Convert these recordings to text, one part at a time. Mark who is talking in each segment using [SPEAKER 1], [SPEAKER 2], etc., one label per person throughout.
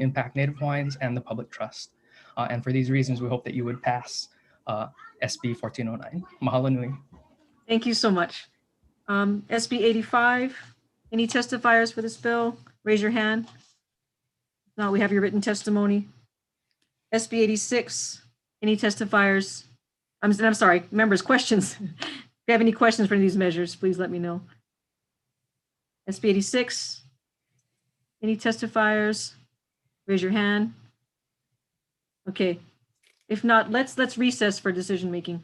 [SPEAKER 1] impact native Hawaiians and the public trust. Uh, and for these reasons, we hope that you would pass uh, SB 1409. Mahalo nui.
[SPEAKER 2] Thank you so much. Um, SB 85, any testifiers for this bill? Raise your hand. If Not. we have your written testimony. SB 86, any testifiers? I'm, I'm sorry, members, questions? If you have any questions for any of these measures, please let me know. SB 86, any testifiers? Raise your hand. Okay, if not, let's, let's recess for decision-making.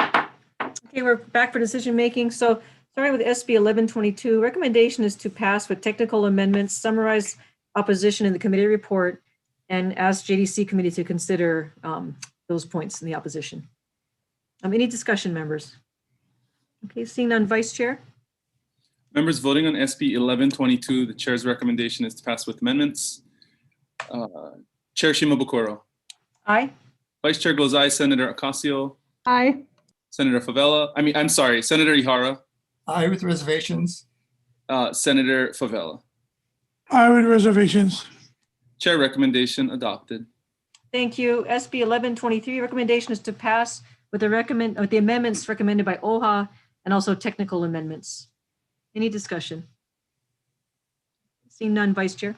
[SPEAKER 2] Okay, we're back for decision making. So starting with SB 1122, recommendation is to pass with technical amendments, summarize opposition in the committee report, and ask JDC committee to consider um, those points in the opposition. Um, Any discussion, members? Okay, seeing none, Vice Chair?
[SPEAKER 3] Members voting on SB 1122, the chair's recommendation is to pass with amendments. Uh, Chair Shimabukuro.
[SPEAKER 2] Aye.
[SPEAKER 3] Vice Chair goes aye. Senator Ocasio.
[SPEAKER 4] Aye.
[SPEAKER 3] Senator Favela, I mean, I'm sorry, Senator Ihara,
[SPEAKER 5] Aye with reservations.
[SPEAKER 3] uh, Senator Favela.
[SPEAKER 6] I with reservations.
[SPEAKER 3] Chair recommendation adopted.
[SPEAKER 2] Thank you. SB 1123, recommendation is to pass with the recommend, with the amendments recommended by OHA and also technical amendments. Any discussion? Seeing none, Vice Chair.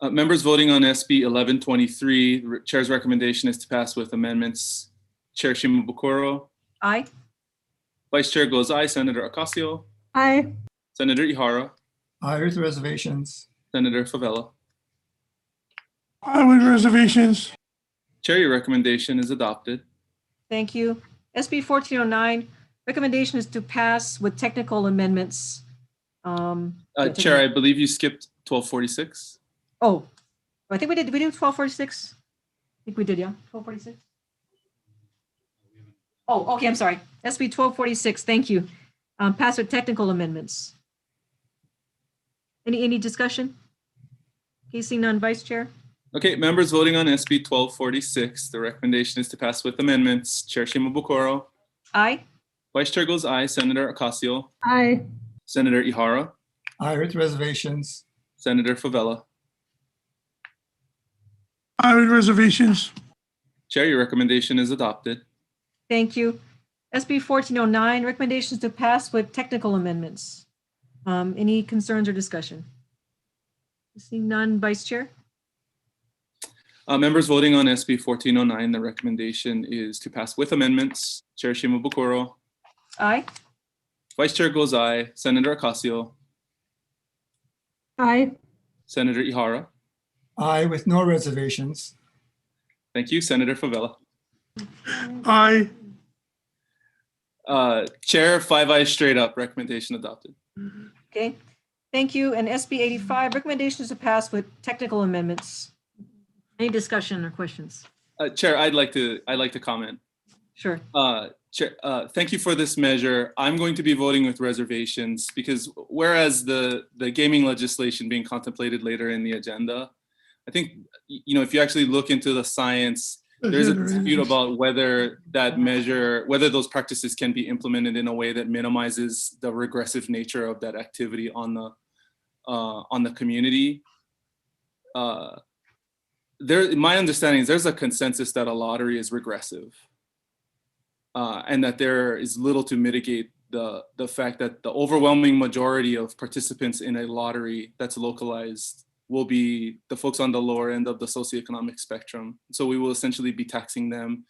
[SPEAKER 3] Uh, Members voting on SB 1123, the re- Chair's recommendation is to pass with amendments. Chair Shimabukuro,
[SPEAKER 2] Aye.
[SPEAKER 3] Vice Chair goes aye. Senator Ocasio,
[SPEAKER 4] Aye.
[SPEAKER 3] Senator Ihara,
[SPEAKER 5] Aye with reservations.
[SPEAKER 3] Senator Favela.
[SPEAKER 6] I with reservations.
[SPEAKER 3] Chair, your recommendation is adopted.
[SPEAKER 2] Thank you. SB 1409, recommendation is to pass with technical amendments. Um,
[SPEAKER 3] Uh, Chair, I believe you skipped 1246.
[SPEAKER 2] Oh, I think we did, did we do 1246? I think we did, yeah, 1246? Oh, okay, I'm sorry. SB 1246, thank you. Um, Pass with technical amendments. Any, any discussion? Okay, seeing none, Vice Chair?
[SPEAKER 3] Okay, members voting on SB 1246, the recommendation is to pass with amendments. Chair Shimabukuro,
[SPEAKER 2] Aye.
[SPEAKER 3] Vice Chair goes aye. Senator Ocasio,
[SPEAKER 4] Aye.
[SPEAKER 3] Senator Ihara,
[SPEAKER 5] Aye with reservations.
[SPEAKER 3] Senator Favela.
[SPEAKER 6] I with reservations.
[SPEAKER 3] Chair, your recommendation is adopted.
[SPEAKER 2] Thank you. SB 1409, recommendations to pass with technical amendments. Um, Any concerns or discussion? Seeing none, Vice Chair?
[SPEAKER 3] Uh, members voting on SB 1409, the recommendation is to pass with amendments. Chair Shimabukuro,
[SPEAKER 2] Aye.
[SPEAKER 3] Vice Chair goes aye. Senator Ocasio,
[SPEAKER 4] Aye.
[SPEAKER 3] Senator Ihara.
[SPEAKER 5] Aye with no reservations.
[SPEAKER 3] Thank you, Senator Favela.
[SPEAKER 6] I
[SPEAKER 3] Uh, Chair, five eyes straight up, recommendation adopted.
[SPEAKER 2] Okay, thank you. And SB 85, recommendations to pass with technical amendments. Any discussion or questions?
[SPEAKER 3] Uh, Chair, I'd like to, I'd like to comment.
[SPEAKER 2] Sure.
[SPEAKER 3] Uh, Chair, uh, thank you for this measure. I'm going to be voting with reservations because whereas the, the gaming legislation being contemplated later in the agenda, I think, y- you know, if you actually look into the science, there's a dispute about whether that measure, whether those practices can be implemented in a way that minimizes the regressive nature of that activity on the, uh, on the community. Uh, There, my understanding is there's a consensus that a lottery is regressive uh, and that there is little to mitigate the the fact that the overwhelming majority of participants in a lottery that's localized will be the folks on the lower end of the socioeconomic spectrum. So we will essentially be taxing them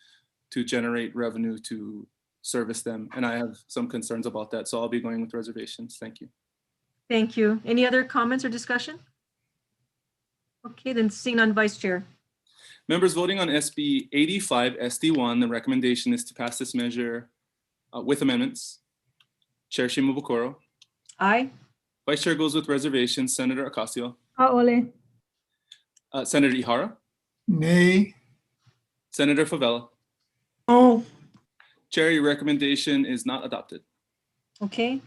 [SPEAKER 3] to generate revenue to service them. And I have some concerns about that. So I'll be going with reservations. Thank you.
[SPEAKER 2] Thank you. Any other comments or discussion? Okay, then seeing none, Vice Chair.
[SPEAKER 3] Members voting on SB 85 SD1, the recommendation is to pass this measure uh, with amendments. Chair Shimabukuro.
[SPEAKER 2] Aye.
[SPEAKER 3] Vice Chair goes with reservations. Senator Ocasio.
[SPEAKER 4] Aye.
[SPEAKER 3] Uh, Senator Ihara,
[SPEAKER 5] Nay.
[SPEAKER 3] Senator Favela,
[SPEAKER 6] Oh,
[SPEAKER 3] Chair, your recommendation is not adopted.
[SPEAKER 2] Okay,